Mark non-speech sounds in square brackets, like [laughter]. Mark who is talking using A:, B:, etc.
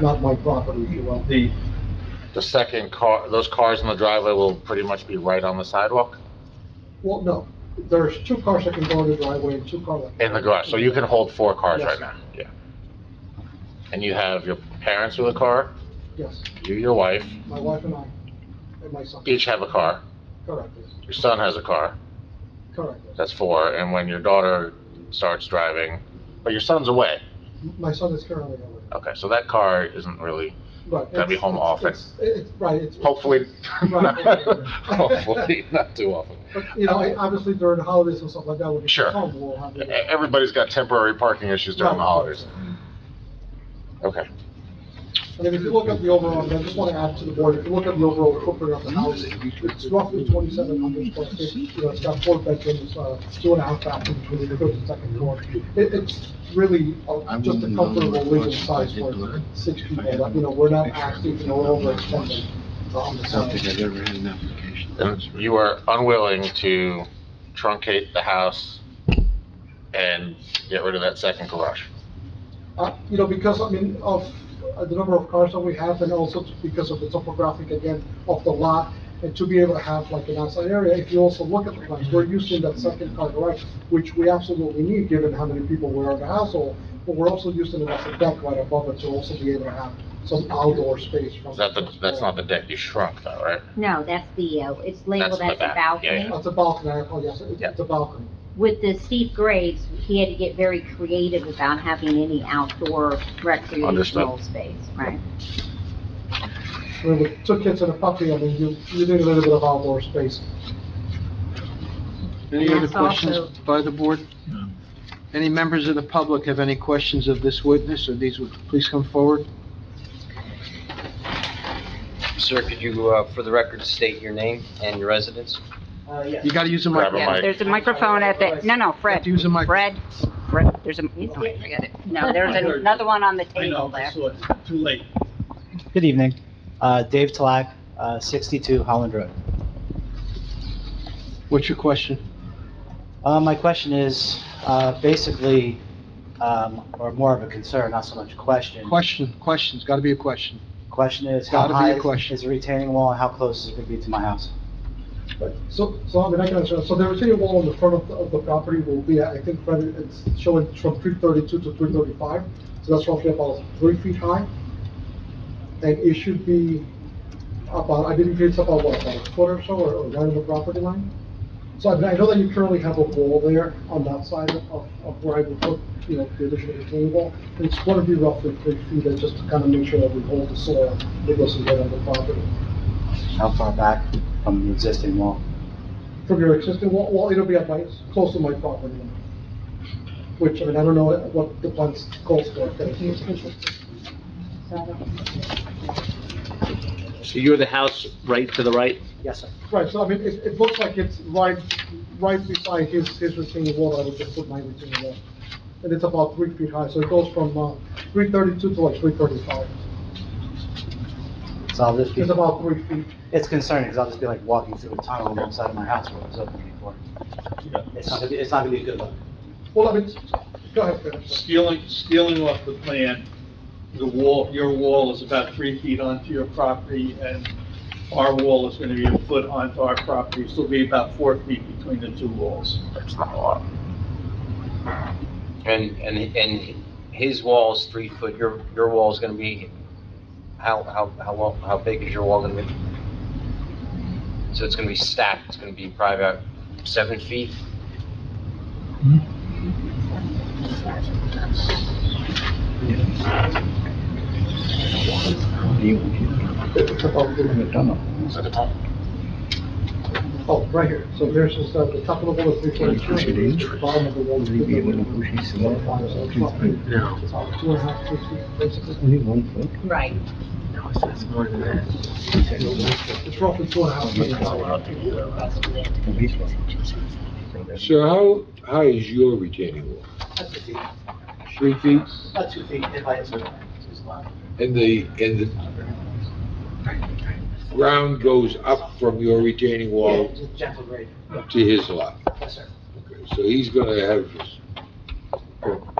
A: not my property, if you will.
B: The,
C: The second car, those cars in the driveway will pretty much be right on the sidewalk
A: Well, no, there's two cars that can go in the driveway and two cars. that-
C: in the garage, so you can hold four cars
A: Yes,
C: right now, yeah. And you have your parents with a car,
A: Yes,
C: you, your wife,
A: my wife and I, and my son.
C: each have a car,
A: Correct, yes,
C: your son has a car,
A: correct, yes.
C: that's four, and when your daughter starts driving, but your son's away,
A: My son is currently away.
C: okay, so that car isn't really,
A: Right.
C: Gotta Oh, be
A: it's-
C: home
A: it's-
C: often.
A: it's- It's, right, it's.
C: hopefully, [laughs]
A: Right, right, right.
C: hopefully, not too often.
A: But, You know, I- obviously during the holidays and stuff like that, when it
C: Sure.
A: gets home, we'll have
C: E-
A: it.
C: Everybody's got temporary parking issues during the
A: Right,
C: holidays,
A: right.
C: okay.
A: And if you look at the overall, and I just want to add to the board, if you look at the overall footprint of the house, it's roughly twenty-seven hundred square feet. You know, it's got four bedrooms, uh, two and a half bathrooms, really, the first and second floor. It, it's really uh, just a comfortable living size for six people, that, you know, we're not asking, you know, we're overextending. um, the
D: Something
A: size.
D: I've ever had an application.
C: And you are unwilling to truncate the house and get rid of that second garage.
A: Uh, you know, because, I mean, of uh, the number of cars that we have, and also t- because of the topographic, again, of the lot, and to be able to have like an outside area, if you also look at the plans, we're using that second car garage, which we absolutely need, given how many people were in the household, but we're also using it as a deck right above it to also be able to have some outdoor space from.
C: Is that the, that's not the deck you shrunk though, right?
E: No, that's the, uh, it's
C: That's
E: labeled
C: the
E: as a
C: back, yeah,
E: balcony.
C: yeah.
A: It's a balcony, oh, yes, it-
C: Yeah.
A: it's a balcony.
E: With the steep grades, he had to get very creative about having any outdoor recreational
C: Understood.
E: space, right?
A: We with two kids and a puppy, I mean, you, you need a little bit of outdoor space.
D: Any
E: And
D: other
E: that's also-
D: questions by the board? Any members of the public have any questions of this witness or these, wit- please come forward.
F: Sir, could you, uh, for the record, state your name and your residence?
A: Uh, yes.
D: You gotta use a
C: Grab a
D: microphone.
C: mic.
G: Yeah, there's a microphone at the, no, no,
D: You have
G: Fred,
D: to use a microphone.
G: Fred, Fred, there's a, forget it. No, there's another one on the
H: I
G: table
H: know,
G: there.
H: I saw it, too late.
I: Good evening. Uh, Dave Talak, uh, 62 Holland Road.
D: What's your question?
I: Uh, My question is uh, basically, um, or more of a concern, not so much a question.
D: Question, questions, gotta be a question.
I: Question is, how
D: Gotta be a
I: high
D: question.
I: is the retaining wall and how close is it going to be to my house?
A: Right. So, so I mean, I can understand, so the retaining wall on the front of, the- of the property will be, I think, Fred, it's showing from three thirty-two to three thirty-five, so that's roughly about three feet high. And it should be about, I believe it's about, what, about a foot or so, or, or right on the property line? So I mean, I know that you currently have a wall there on that side of, of where I would put, you know, the additional retaining wall. It's gonna be roughly three feet, and just to kind of make sure that we hold the soil that goes in there on the property.
I: How far back from the existing wall?
A: From your existing wall, well, it'll be at my, close to my property line. Which, I mean, I don't know what the plans calls for.
J: So you're the house right to the right?
I: Yes, sir.
A: Right, so I mean, it, it looks like it's right, right beside his, his retaining wall, I would just put my retaining wall. And it's about three feet high, so it goes from, uh, three thirty-two to like three thirty-five.
I: So I'll just be,
A: It's about three feet.
I: it's concerning because I'll just be like walking through a tunnel inside of my house where it was open before. It's not going to be, it's not going to be a good look.
A: Well, I mean, go ahead, finish.
H: Stealing, stealing off the plan, the wall, your wall is about three feet onto your property, and our wall is gonna be a foot onto our property, so it'll be about four feet between the two walls.
C: That's not a lot.
F: And, and, and his wall's three foot, your, your wall's gonna be, how, how, how long, how big is your wall gonna be? So it's gonna be stacked, it's gonna be probably about seven feet?
A: It's about three feet.
C: Is that a ton?
A: Oh, right here, so here's just, uh, the top of the wall is three thirty-two, bottom of the wall is three thirty-two. So it's roughly- it's about two and a half, three feet, basically.
G: Right.
A: It's roughly two and a half million dollars.
K: Sir, how high is your retaining wall?
I: That's two feet,
K: Three feet?
I: that's two feet if I answer.
K: And the, and the ground goes up from your retaining
I: Yeah,
K: wall
I: just gentle grade.
K: to his lot?
I: Yes, sir.
K: Okay, So he's gonna have,